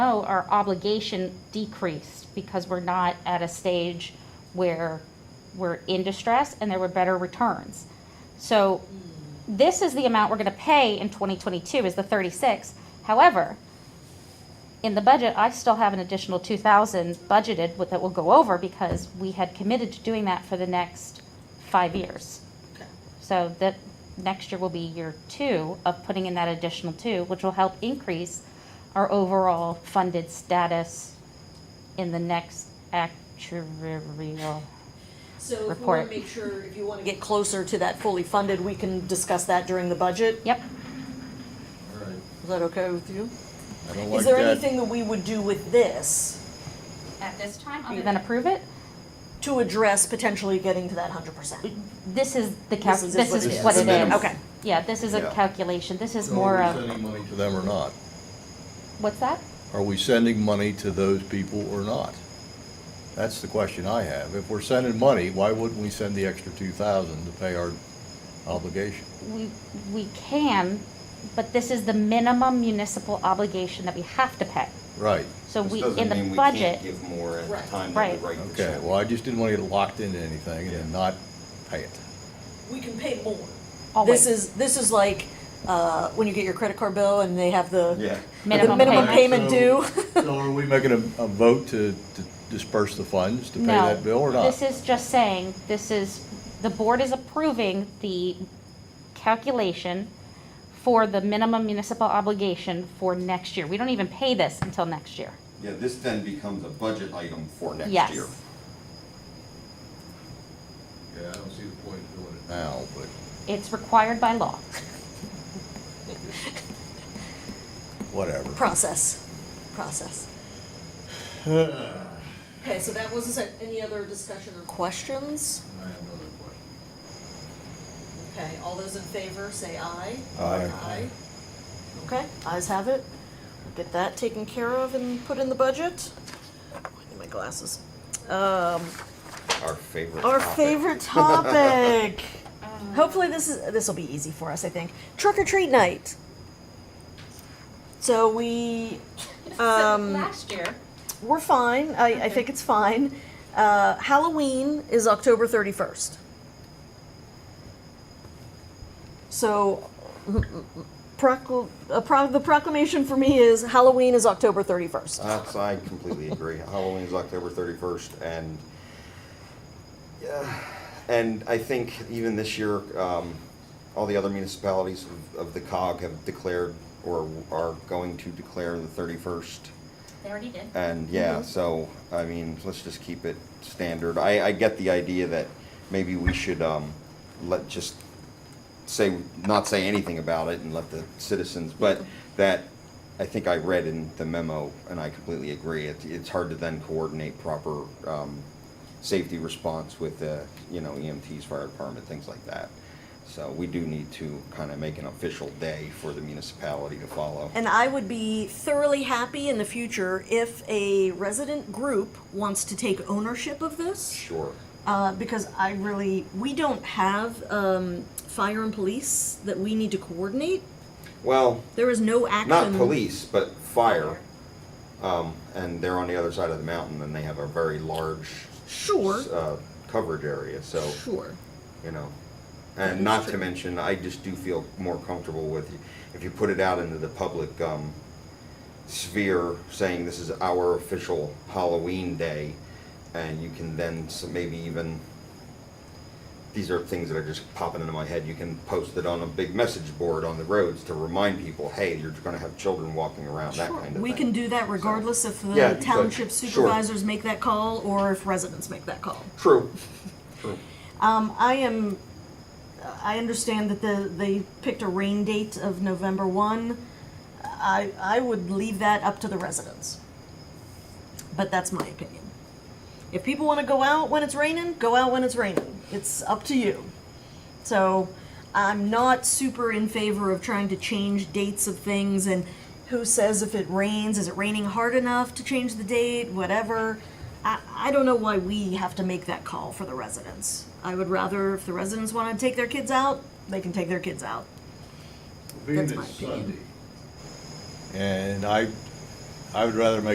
feel our obligation decreased because we're not at a stage where we're in distress and there were better returns. So this is the amount we're gonna pay in twenty twenty-two is the thirty-six. However, in the budget, I still have an additional two thousand budgeted with- that will go over because we had committed to doing that for the next five years. Okay. So that next year will be year two of putting in that additional two, which will help increase our overall funded status in the next actuarial. So if we Report. want to make sure, if you want to get closer to that fully funded, we can discuss that during the budget. Yep, All right. Is that okay with you? Oh, I Is don't like there that. anything that we would do with this at this time, other than approve it, to address potentially getting to that hundred percent? this is the calc, This is this what it is is. what it Minimum. is. Okay. Yeah, this is a Yeah. calculation, this is So more Are we of, sending money to them or not? what's that? Are we sending money to those people or not? That's the question I have. If we're sending money, why wouldn't we send the extra two thousand to pay our obligation? We, we can, but this is the minimum municipal obligation that we have to pay. Right. So This we, doesn't in mean the we can't budget, Give more at Right. the time that Right. we write the Okay, check. well, I just didn't want to get locked into anything and then not pay it. We can pay more. always. This is, this is like, uh, when you get your credit card bill and they have the, Yeah. the Minimum minimum payment. payment due. So are we making a, a vote to, to disperse the funds to pay that bill or no, not? this is just saying, this is, the board is approving the calculation for the minimum municipal obligation for next year. We don't even pay this until next year. Yeah, this then becomes a budget item for next Yes. year. Yeah, I don't see the point in doing it. Now, but. It's required by law. Whatever. Process, process. Okay, so that was, not any other discussion or questions? I have another question. Okay, all those in favor, say aye. Aye. Okay, ayes have it. Get that taken care of and put in the budget. I need my glasses. Um, Our favorite our topic. favorite topic. Hopefully this is, this will be easy for us, I think. Trick or treat night. So we, um. Last year. We're fine. I, I think it's fine. Uh, Halloween is October 31st. So, procl- uh, pro- the proclamation for me is Halloween is October 31st. That's, I completely agree. Halloween is October thirty-first, and yeah, and I think even this year, um, all the other municipalities of, of the COG have declared or are going to declare the thirty-first. They already did. And yeah, so I mean, let's just keep it standard. I, I get the idea that maybe we should um, let just say not say anything about it and let the citizens. But that I think I read in the memo, and I completely agree. It, it's hard to then coordinate proper um, safety response with the you know EMTs, fire department, things like that. So we do need to kind of make an official day for the municipality to follow. And I would be thoroughly happy in the future if a resident group wants to take ownership of this. Sure. Uh, because I really, we don't have um, fire and police that we need to coordinate. Well, There is no action. not police, but fire. Um, and they're on the other side of the mountain, and they have a very large Sure. uh, coverage area. So Sure. you know, and not to mention, I just do feel more comfortable with you if you put it out into the public um, sphere, saying this is our official Halloween day, and you can then s- maybe even. These are things that are just popping into my head. You can post it on a big message board on the roads to remind people, hey, you're going to have children walking around, that kind of thing. We can do that regardless if Yeah, the you could. township Sure. supervisors make that call or if residents make that call. True. True. Um, I am, I understand that the, they picked a rain date of November one. I, I would leave that up to the residents. But that's my opinion. If people wanna go out when it's raining, go out when it's raining. It's up to you. So I'm not super in favor of trying to change dates of things and who says if it rains, is it raining hard enough to change the date, whatever. I, I don't know why we have to make that call for the residents. I would rather if the residents want to take their kids out, they can take their kids out. Being That's my it's opinion. Sunday. And I, I would rather make